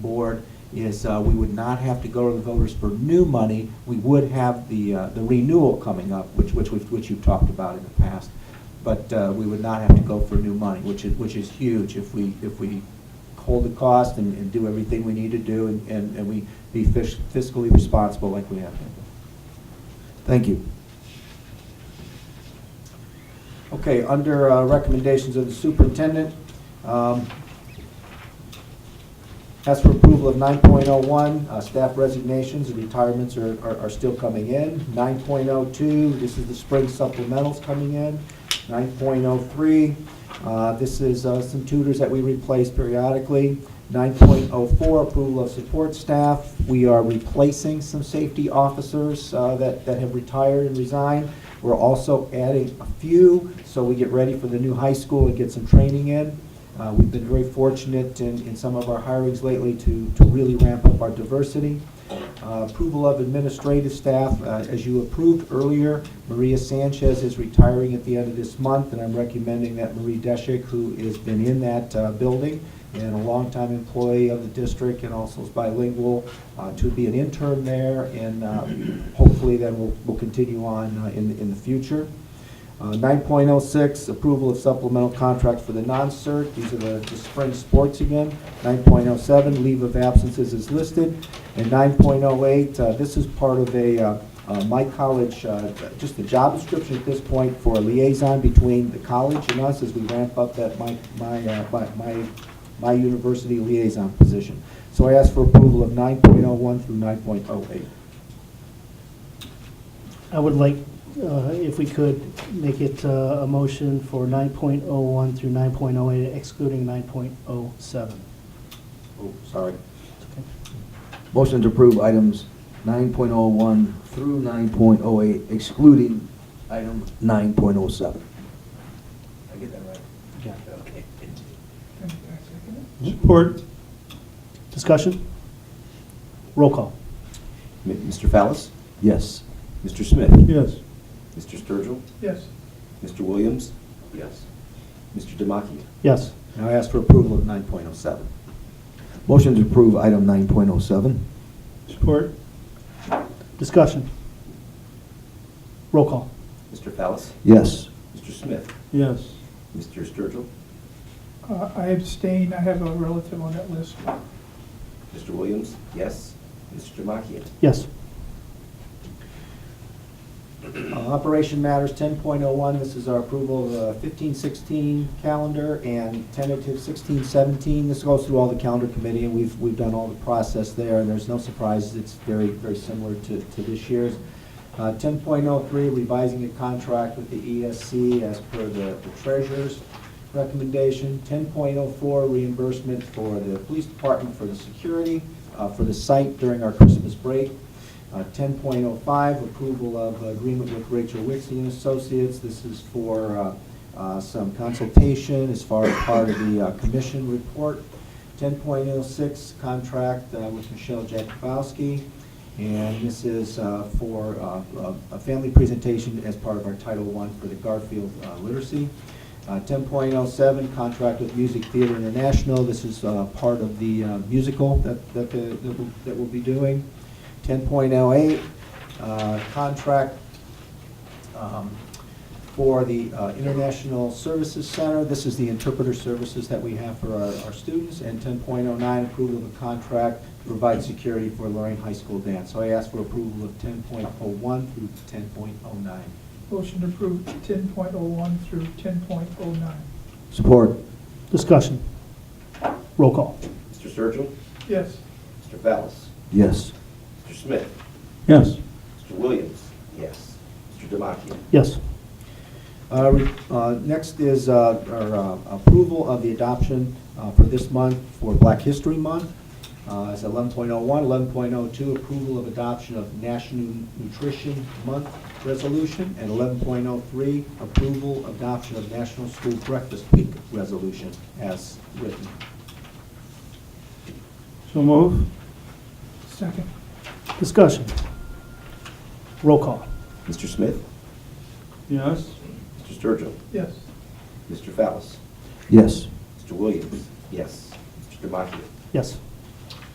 board is uh, we would not have to go to the voters for new money. We would have the, uh, the renewal coming up, which, which, we've- which you've talked about in the past. But uh, we would not have to go for new money, which is, which is huge if we, if we hold the cost and, and do everything we need to do and, and and we be fis- fiscally responsible like we have. been. Thank you. Okay, under uh, recommendations of the superintendent, um, as for approval of 9.01, uh, staff resignations and retirements are, are- are still coming in. 9.02, this is the spring supplementals coming in. 9.03, uh, this is uh, some tutors that we replace periodically. 9.04, approval of support staff. We are replacing some safety officers uh, that, that have retired and resigned. We're also adding a few, so we get ready for the new high school and get some training in. Uh, We've been very fortunate in, in some of our hirings lately to, to really ramp up our diversity. Uh, Approval of administrative staff, uh, as you approved earlier, Maria Sanchez is retiring at the end of this month, and I'm recommending that Marie Deschek, who has been in that uh, building and a longtime employee of the district and also is bilingual, uh, to be an intern there, and uh, hopefully then we'll, we'll continue on uh, in, in the future. Uh, 9.06, approval of supplemental contract for the non-cert. These are the the spring sports again. 9.07, leave of absences is listed. And 9.08, uh, this is part of a, uh, uh, my college, uh, just the job description at this point for a liaison between the college and us as we ramp up that my, my, uh, my- my, my university liaison position. So I ask for approval of 9.01 through 9.08. I would like, uh, if we could, make it uh, a motion for 9.01 through 9.08, excluding 9.07. Oh, sorry. Motion to approve items 9.01 through 9.08 excluding item 9.07. I get that right? Yeah. Okay. Support. Discussion? Roll call. M- Mr. Fallis, Yes. Mr. Smith, Yes. Mr. Sturgill, Yes. Mr. Williams. Yes. Mr. Damachia. Yes. Now I ask for approval of 9.07. Motion to approve item 9.07. Support. Discussion? Roll call. Mr. Fallis, Yes. Mr. Smith, Yes. Mr. Sturgill, Uh, I abstain, I have a relative on that list. Mr. Williams. Yes. Mr. Damachia. Yes. Uh, Operation Matters, 10.01, this is our approval of the 15-16 calendar and tentative 16-17. This goes through all the calendar committee, and we've, we've done all the process there, and there's no surprises, it's very, very similar to, to this year's. Uh, 10.03, revising a contract with the ESC as per the the treasurer's recommendation. 10.04, reimbursement for the police department for the security, uh, for the site during our Christmas break. Uh, 10.05, approval of agreement with Rachel Wixie and Associates. This is for uh, uh, some consultation as far as part of the uh, commission report. 10.06, contract uh, with Michelle Jakubowski. And this is uh, for uh, a- a family presentation as part of our Title I for the Garfield uh, Literacy. Uh, 10.07, contract with Music Theater International. This is uh, part of the uh, musical that, that the- that we'll- that we'll be doing. 10.08, uh, contract um, for the uh, International Services Center. This is the interpreter services that we have for our our students. And 10.09, approval of a contract to provide security for Lorraine High School dance. So I ask for approval of 10.01 through 10.09. Motion to approve ten point oh one through ten point oh nine. Support. Discussion? Roll call. Mr. Sturgill, Yes. Mr. Fallis, Yes. Mr. Smith, Yes. Mr. Williams. Yes. Mr. Damachia. Yes. Uh, re- uh, Next is uh, our uh, approval of the adoption uh, for this month for Black History Month. Uh, It's 11.01, 11.02, approval of adoption of National Nutrition Month Resolution, and 11.03, approval adoption of National School Breakfast Week Resolution as written. So move. Second. Discussion? Roll call. Mr. Smith, Yes. Mr. Sturgill, Yes. Mr. Fallis, Yes. Mr. Williams. Yes. Mr. Damachia. Yes.